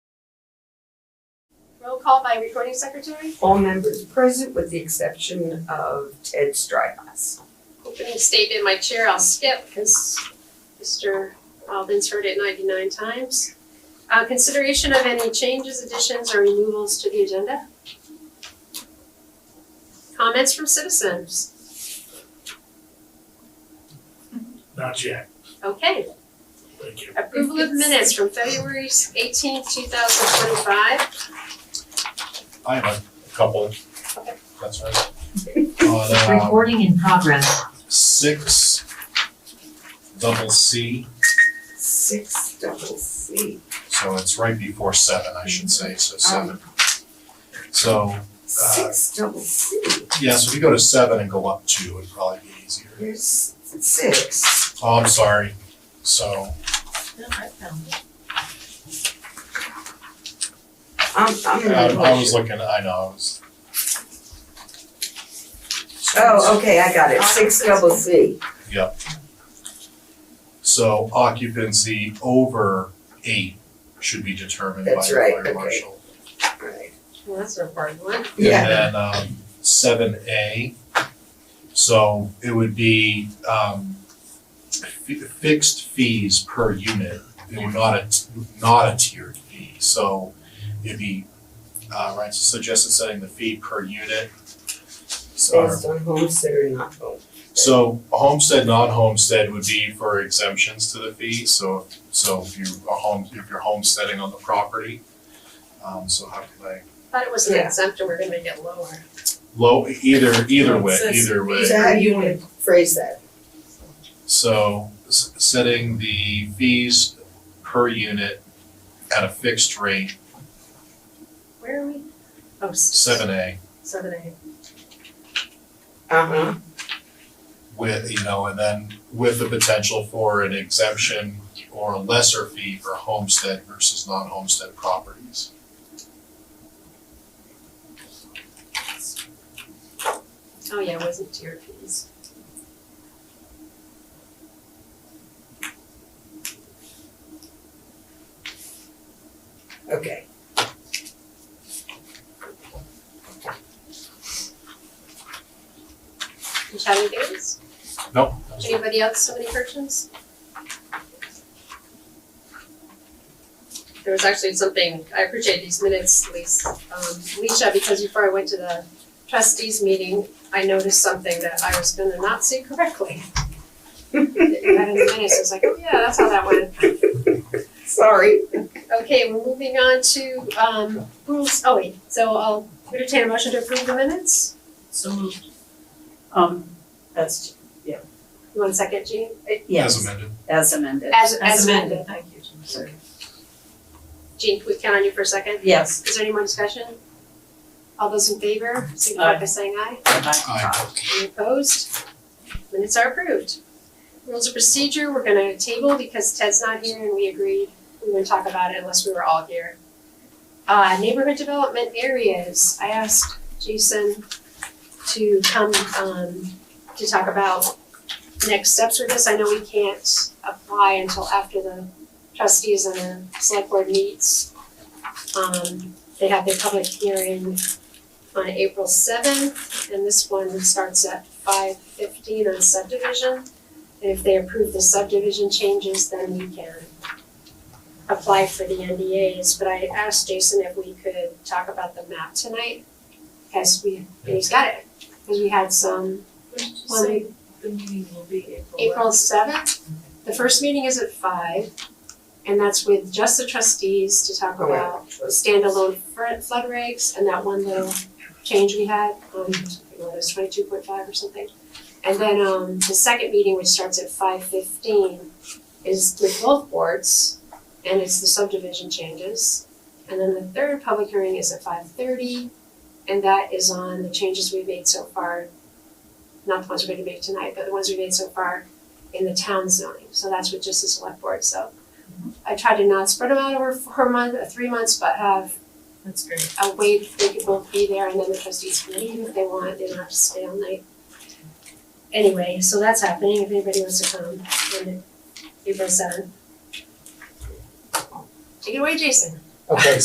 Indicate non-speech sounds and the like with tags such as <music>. call by recording secretary. All members present with the exception of Ted Strybus. Opening statement, my chair, I'll skip because Mr. Alden's heard it ninety-nine times. Uh, consideration of any changes, additions, or removals to the agenda? Comments from citizens? Not yet, Okay. thank you. Approval of minutes from February eighteenth, two thousand twenty-five. I have a couple. Okay. That's right. On, uh, Recording in progress. six, double C, Six double C. so it's right before seven, I should say, Mm-hmm. so seven. So, Six Uh, double C. yeah, so if you go to seven and go up two, it'd probably be easier. Here's six. Oh, I'm sorry, so, I'm, I'm I, gonna. I was looking, I know, I was. Oh, okay, I got it. Six double C. So occupancy over eight should be determined by the That's right, fire okay. marshal. Right. Well, that's an important one. Yeah. And then um seven A. So it would be um fi- fixed fees per unit, it would not a, not a tiered fee, so it'd be uh right, so suggested setting the fee per unit. So Based on homestead or not home. so homestead, non-homestead would be for exemptions to the fee, so so if you are home, if you're homesteading on the property. Um so how could I, Thought it was an Yeah. exempt and we're gonna make it lower. low, either either way, Says either way. So how do you wanna phrase that? So s- setting the fees per unit at a fixed rate, Where are we? Oh, s- seven A, Seven A. Uh-huh. with, you know, and then with the potential for an exemption or a lesser fee for homestead versus non-homestead properties. Oh, yeah, it wasn't tier fees. Okay. You have any theories? Nope. Anybody else have any questions? There was actually something, I appreciate these minutes, Lisa, um, Leisha, because before I went to the trustees meeting, I noticed something that I was gonna not see correctly. <laughs> That in the minutes, I was like, oh yeah, that's how that went. Sorry. Okay, we're moving on to, um, rules, oh wait, so I'll entertain a motion to approve the minutes. So moved. Um, That's, You want a second, Jean? As yes, amended. as amended. As, as amended. Thank you, Jim, sorry. Jean, can we count on you for a second? Yes. Is there any more discussion? All those in favor, signify by saying aye. Aye. Any opposed? Minutes are approved. Rules of procedure, we're gonna table because Ted's not here and we agreed we wouldn't talk about it unless we were all here. Uh, neighborhood development areas, I asked Jason to come, um, to talk about next steps with this. I know we can't apply until after the trustees and the select board meets. Um, they have their public hearing on April seventh. And this one starts at five fifteen on subdivision. And if they approve the subdivision changes, then we can apply for the NDAs. But I asked Jason if we could talk about the map tonight, because we, he's got it. Because we had some, Well, say the meeting will be April seventh, the first meeting is at five. And that's with just the trustees to talk Oh, yeah. about standalone fr- flood regs and that one little change we had, um, it was twenty-two point five or something. And then, um, the second meeting, which starts at five fifteen, is with both boards, and it's the subdivision changes. And then the third public hearing is at five thirty, and that is on the changes we've made so far. Not the ones we're gonna make tonight, but the ones we made so far in the town zoning, so that's with just the select board, so. I try to not spread them out over four months, uh, three months, but have That's great. a way that they could both be there and then the trustees can leave if they want, they don't have to stay all night. Anyway, so that's happening, if anybody wants to come on April seventh. Take it away, Jason. Okay,